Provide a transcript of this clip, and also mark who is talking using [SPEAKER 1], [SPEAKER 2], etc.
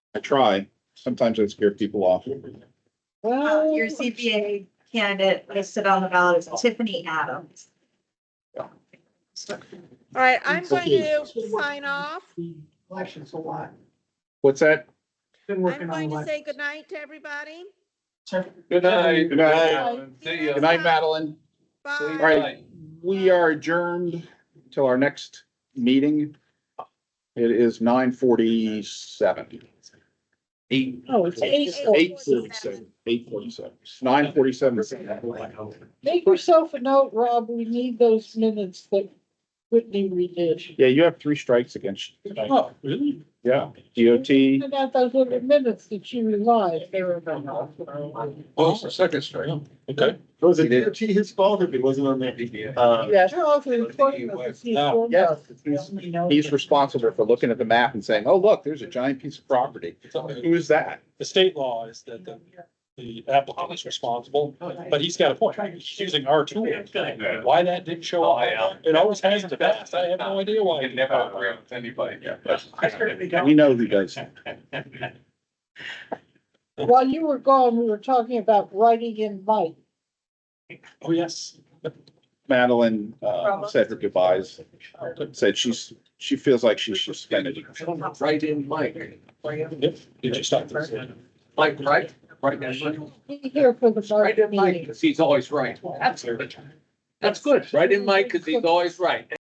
[SPEAKER 1] I try. Sometimes I scare people off. Oh,
[SPEAKER 2] Uh, Your CPA candidate listed on the ballot is Tiffany Adams.
[SPEAKER 3] All right, I'm going to
[SPEAKER 4] Okay.
[SPEAKER 3] sign off.
[SPEAKER 4] Elections a lot.
[SPEAKER 1] What's that?
[SPEAKER 4] Been
[SPEAKER 3] I'm
[SPEAKER 4] working on
[SPEAKER 3] going to
[SPEAKER 4] elections.
[SPEAKER 3] say goodnight to everybody.
[SPEAKER 5] Good night.
[SPEAKER 1] Good night.
[SPEAKER 5] See ya.
[SPEAKER 1] Good night, Madeline.
[SPEAKER 5] See
[SPEAKER 3] Bye.
[SPEAKER 5] ya.
[SPEAKER 1] All right. We are adjourned till our next meeting. It is nine forty-seven. Eight.
[SPEAKER 6] Oh, it's eight.
[SPEAKER 1] Eight forty-seven, eight forty-seven, nine forty-seven.
[SPEAKER 6] Make yourself a note, Rob, we need those minutes that Whitney redid.
[SPEAKER 1] Yeah, you have three strikes against, you tonight.
[SPEAKER 6] Oh, really?
[SPEAKER 1] yeah, DOT.
[SPEAKER 6] And out those little minutes that she revised, they were.
[SPEAKER 5] Oh, it's the second strike.
[SPEAKER 7] Okay.
[SPEAKER 4] It was a
[SPEAKER 5] Yeah.
[SPEAKER 4] DOT his fault if he wasn't on that. Uh,
[SPEAKER 6] Yeah, they're also important to see for
[SPEAKER 1] Yes.
[SPEAKER 6] us. We only know
[SPEAKER 1] He's
[SPEAKER 6] that.
[SPEAKER 1] responsible for looking at the map and saying, oh, look, there's a giant piece of property.
[SPEAKER 7] The
[SPEAKER 1] Who's that?
[SPEAKER 7] state law is that the, the applicant is responsible, but he's got a point. He's using our tool. Why that didn't show up? It always has in the past. I have no idea why.
[SPEAKER 5] Oh, It never outranks anybody.
[SPEAKER 1] We know who does.
[SPEAKER 6] While you were gone, we were talking about writing in Mike.
[SPEAKER 7] Oh, yes.
[SPEAKER 1] Madeline uh, said her goodbyes, said she's, she feels like she's suspended.
[SPEAKER 5] Right in Mike.
[SPEAKER 7] Yep. Did you stop this?
[SPEAKER 5] Like, right, right in
[SPEAKER 6] Be here for the
[SPEAKER 5] Right
[SPEAKER 6] March
[SPEAKER 5] in Mike,
[SPEAKER 6] meeting.
[SPEAKER 5] because he's always right. That's good. Right in Mike, because he's always right.